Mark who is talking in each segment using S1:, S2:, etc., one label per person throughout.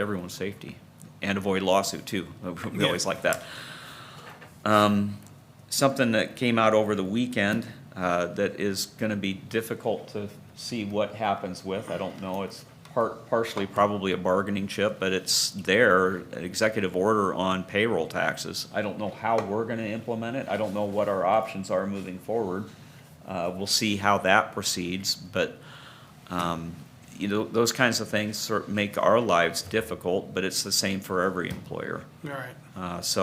S1: everyone's safety and avoid lawsuit too. We always like that. Um, something that came out over the weekend, uh, that is gonna be difficult to see what happens with, I don't know, it's part, partially probably a bargaining chip, but it's there, an executive order on payroll taxes. I don't know how we're gonna implement it, I don't know what our options are moving forward. Uh, we'll see how that proceeds, but, um, You know, those kinds of things sort of make our lives difficult, but it's the same for every employer.
S2: All right.
S1: Uh, So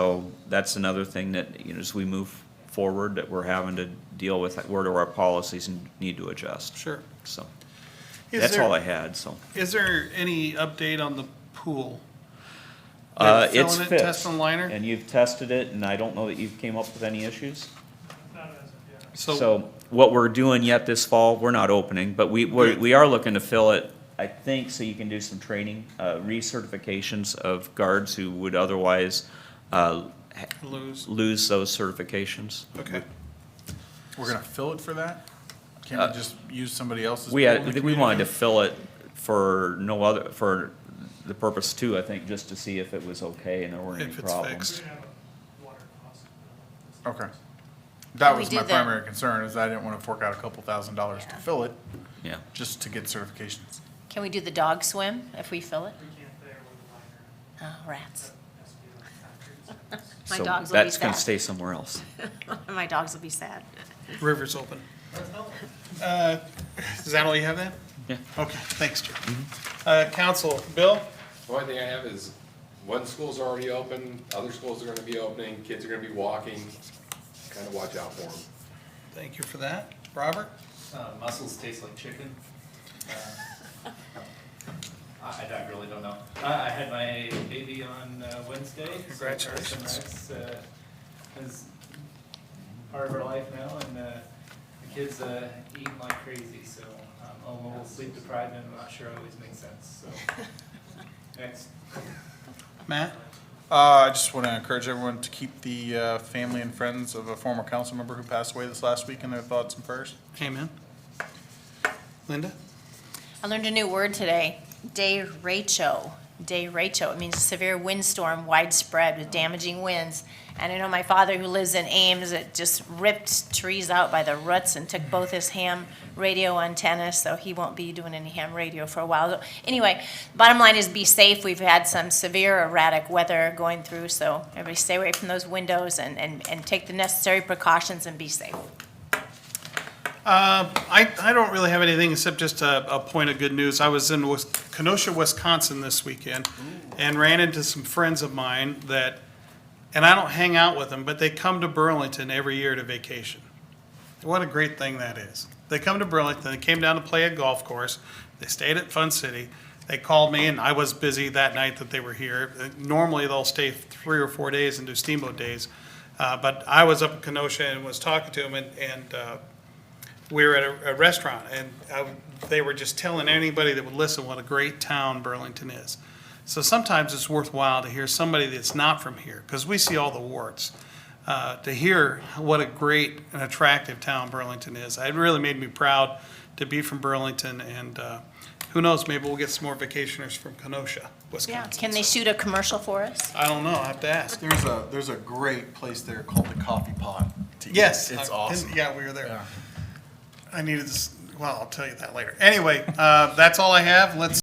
S1: that's another thing that, you know, as we move forward, that we're having to deal with, where do our policies need to adjust?
S2: Sure.
S1: So,
S2: Is
S1: that's
S2: there-
S1: all I had, so.
S2: Is there any update on the pool?
S1: Uh,
S2: They're
S1: It's
S2: filling it,
S1: fixed.
S2: testing liner?
S1: And you've tested it, and I don't know that you've came up with any issues?
S2: So,
S1: So what we're doing yet this fall, we're not opening, but we, we we are looking to fill it, I think, so you can do some training, uh, recertifications of guards who would otherwise, uh, ha-
S2: lose,
S1: lose those certifications.
S2: okay.
S3: We're gonna fill it for that? Can't we just use somebody else's?
S1: Uh, We
S3: pool in the
S1: had, we wanted to
S3: community?
S1: fill it for no other, for the purpose too, I think, just to see if it was okay and there weren't any
S2: If it's
S1: problems.
S2: fixed.
S3: Okay. That
S4: We
S3: was
S4: do
S3: my
S4: the-
S3: primary concern, is I didn't wanna fork out a couple thousand dollars to
S4: Yeah.
S3: fill it,
S1: Yeah,
S3: just to get certifications.
S4: Can we do the dog swim if we fill it?
S5: We can't there with the liner,
S4: Oh, rats.
S5: has to be on concrete, so it's-
S4: My
S1: so
S4: dogs will be
S1: that's gonna
S4: sad.
S1: stay somewhere else.
S4: My dogs will be sad.
S2: River's open. Uh, Is that all you have then?
S1: Yeah.
S2: Okay, thanks, Jim.
S1: Mm-hmm.
S2: Uh, Council, Bill?
S6: The only thing I have is, one school's already open, other schools are gonna be opening, kids are gonna be walking, kinda watch out for them.
S2: Thank you for that. Robert?
S7: Uh, mussels taste like chicken. Uh, I, I don't- really don't know. I, I had my baby on uh, Wednesday. so
S2: Congratulations.
S7: Carson Rice, uh, Is part of her life now, and uh, the kids uh, eating like crazy, so um, I'm a little sleep deprived, and I'm not sure it always makes sense, so. Next.
S2: Matt?
S3: Uh, I just wanna encourage everyone to keep the, uh, family and friends of a former council member who passed away this last week in their thoughts and prayers.
S2: Amen. Linda?
S4: I learned a new word today, derecho. Derecho. It means a severe windstorm widespread with damaging winds. And I know my father who lives in Ames, it just ripped trees out by the roots and took both his ham radio antennas, so he won't be doing any ham radio for a while. Anyway, bottom line is be safe. We've had some severe erratic weather going through, so everybody stay away from those windows and, and, and take the necessary precautions and be safe.
S2: I, I don't really have anything except just a, a point of good news. I was in Wis- Kenosha, Wisconsin this weekend and ran into some friends of mine that, and I don't hang out with them, but they come to Burlington every year to vacation. What a great thing that is. They come to Burlington, they came down to play a golf course, they stayed at Fun City. They called me and I was busy that night that they were here. Uh, Normally, they'll stay three or four days and do steamboat days. Uh, but I was up in Kenosha and was talking to them and, and, uh, we were at a, a restaurant and I, they were just telling anybody that would listen what a great town Burlington is. So sometimes it's worthwhile to hear somebody that's not from here because we see all the warts. Uh, to hear what a great and attractive town Burlington is, it really made me proud to be from Burlington. And uh, who knows, maybe we'll get some more vacationers from Kenosha,
S4: Yeah.
S2: Wisconsin.
S4: Can they shoot a commercial for us?
S2: I don't know. I have to ask.
S3: There's a, there's a great place there called the Coffee Pot. to eat.
S2: Yes.
S3: It's
S2: I-
S3: awesome.
S2: Yeah, we were there.
S3: Yeah.
S2: I needed this. Well, I'll tell you that later. Anyway, uh, that's all I have. Let's.